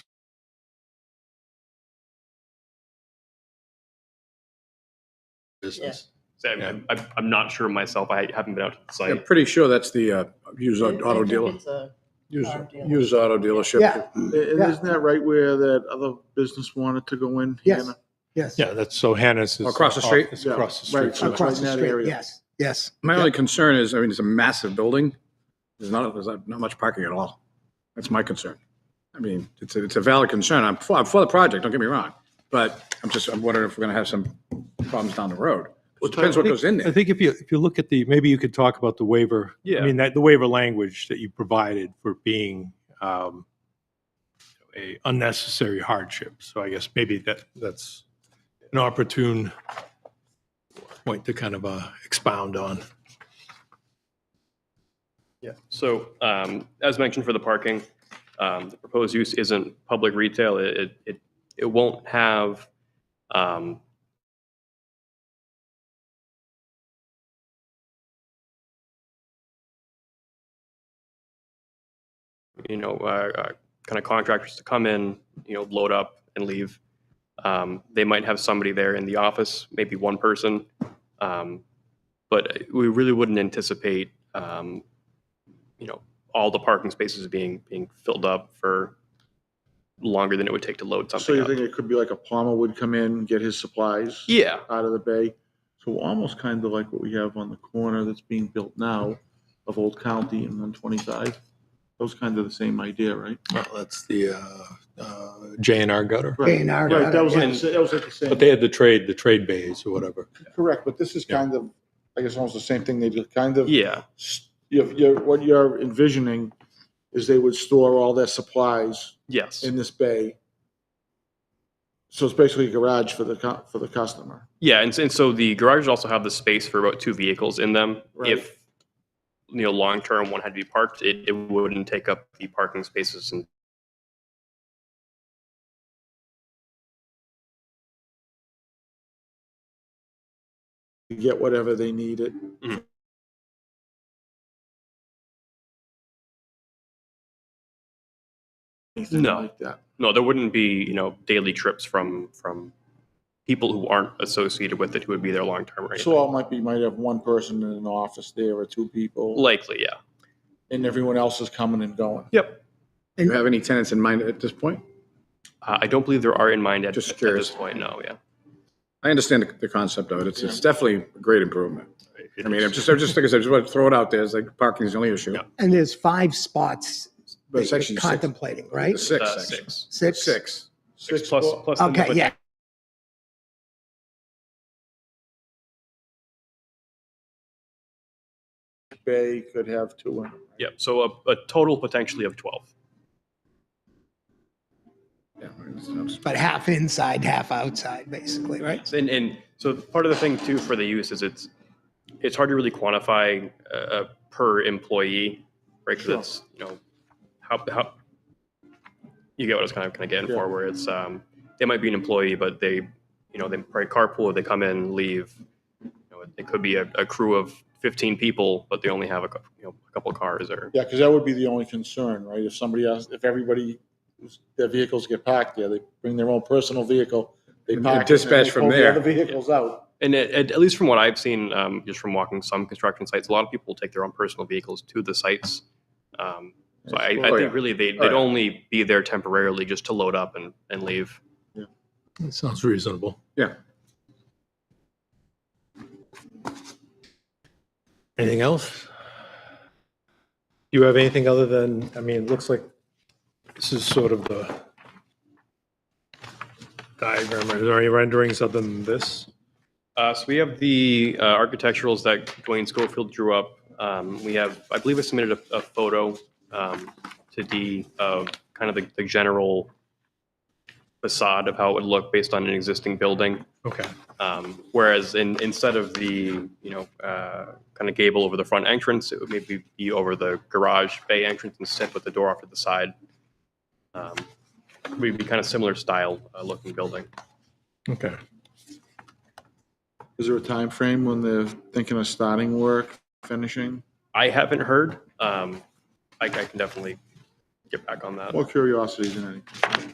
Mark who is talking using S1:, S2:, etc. S1: business.
S2: So I'm,
S3: Yeah.
S2: I'm, I'm not sure myself. I haven't been out to the
S3: I'm
S2: site.
S3: pretty sure that's the, uh, used
S4: I- I
S3: auto
S4: think
S3: dealer,
S4: it's a-
S3: used,
S4: Auto dealer.
S3: used auto
S5: Yeah.
S3: dealership.
S6: And isn't that right where that other business wanted to go in?
S5: Yes.
S6: Hannah?
S5: Yes.
S7: Yeah, that's, so Hannah's is.
S3: Across the street?
S7: It's
S6: Yeah,
S7: across the
S6: right.
S7: street. from us.
S5: Across
S6: in
S5: the
S6: that
S5: street,
S6: area.
S5: yes, yes.
S3: My only concern is, I mean, it's a massive building. There's not, there's not not much parking at all. That's my concern. I mean, it's, a- it's a valid concern. I'm for, I'm for the project, don't get me wrong. But I'm just, I'm wondering if we're gonna have some problems down the road. It depends what goes in
S7: I
S3: there.
S7: think if you, if you look at the, maybe you could talk about the waiver.
S2: Yeah.
S7: I mean, that, the waiver language that you provided for being um, a unnecessary hardship. So I guess maybe that, that's an opportune point to kind of uh, expound on.
S2: Yeah. So, um, as mentioned for the parking, um, the proposed use isn't public retail. It, it, it, it won't have, um, you know, uh, uh, kind of contractors to come in, you know, load up and leave. Um, they might have somebody there in the office, maybe one person. Um, but we really wouldn't anticipate, um, you know, all the parking spaces being, being filled up for longer than it would take to load
S6: So
S2: something
S6: you
S2: up.
S6: think it could be like a Palmer would come in, get his supplies
S2: Yeah,
S6: out of the bay? So almost kind of like what we have on the corner that's being built now of Old County and one twenty-five. Those kind of the same idea, right?
S7: Well, That's the uh, uh, J and R gutter.
S5: A and R
S6: Right, that was like,
S2: And-
S6: the sa- that was like the same.
S7: But they had the trade, the trade bays or whatever.
S6: Correct, but this is
S7: Yeah.
S6: kind of, I guess almost the same thing they did, kind of.
S2: yeah,
S6: s- You're, you're, what you're envisioning is they would store all their supplies
S2: yes.
S6: in this bay. So it's basically a garage for the, cu- for the customer.
S2: Yeah, and, and so the garages also have the space for about two vehicles in them.
S6: Right.
S2: If you know, long term, one had to be parked, it, it wouldn't take up the parking spaces and
S6: to get whatever they needed.
S2: Mhm.
S6: Anything
S2: No.
S6: like that.
S2: no, there wouldn't be you know daily trips from from people who aren't associated with it who would be there long term or anything.
S6: So I might be, might have one person in an office there or two people,
S2: Likely, yeah.
S6: and everyone else is coming and going.
S3: Do you have any tenants in mind at this point?
S2: Uh, I don't believe there are in mind at,
S3: Just
S2: at
S3: curious.
S2: this point. No, yeah.
S3: I understand the- the concept of it. It's, it's definitely a great improvement.
S7: It
S3: I mean,
S7: is-
S3: I'm just, I'm just, like I said, just want to throw it out there. It's like parking's the only issue.
S2: Yeah.
S5: And there's five spots
S3: But
S5: that
S3: it's
S5: you're
S3: actually six,
S5: contemplating, right?
S3: it's six,
S2: Uh,
S3: actually.
S2: six.
S5: Six?
S3: Six.
S2: Six plus
S6: foot-
S2: plus. the
S5: Okay,
S2: but-
S5: yeah.
S6: Bay could have two. in.
S2: Yeah. So a, a total potentially of twelve.
S3: Yeah, I mean, it's-
S5: But half inside, half outside, basically, right?
S2: And, and so part of the thing too for the use is it's, it's hard to really quantify uh, uh, per employee, right? Because it's, you know, how, how, you get what I was kind of, kind of getting
S6: Yeah.
S2: for where it's, um, they might be an employee, but they, you know, they probably carpool, they come in, leave. You know, It could be a, a crew of 15 people, but they only have a, cou- you know, a couple cars or,
S6: Yeah, because that would be the only concern, right? If somebody else, if everybody, their vehicles get packed there, they bring their own personal vehicle. They
S3: And-
S6: park
S3: and
S6: it, then they
S3: dispatch from
S6: pull the
S3: there.
S6: Other vehicles out.
S2: and at, at- at least from what I've seen, um, just from walking some construction sites, a lot of people take their own personal vehicles to the sites. Um, So I, I
S3: Oh,
S2: think
S3: yeah.
S2: really they,
S3: Oh,
S2: they'd
S3: yeah.
S2: only be there temporarily just to load up and, and leave.
S7: It sounds reasonable.
S3: Yeah.
S7: Anything else? You have anything other than, I mean, it looks like this is sort of the diagram. Are there any renderings other than this?
S2: Uh, so we have the uh, architecturals that Dwayne Schofield drew up. Um, we have, I believe I submitted a, a photo um, to D of kind of the, the general facade of how it would look based on an existing building.
S7: Okay.
S2: Um, whereas in, instead of the, you know, uh, kind of gable over the front entrance, it would maybe be over the garage bay entrance instead with the door off to the side. Um, We'd be kind of similar style uh, looking building.
S7: Okay.
S6: Is there a time frame when they're thinking of starting work, finishing?
S2: I haven't heard. Um, I, I can definitely get back on that.
S6: More curiosity than anything.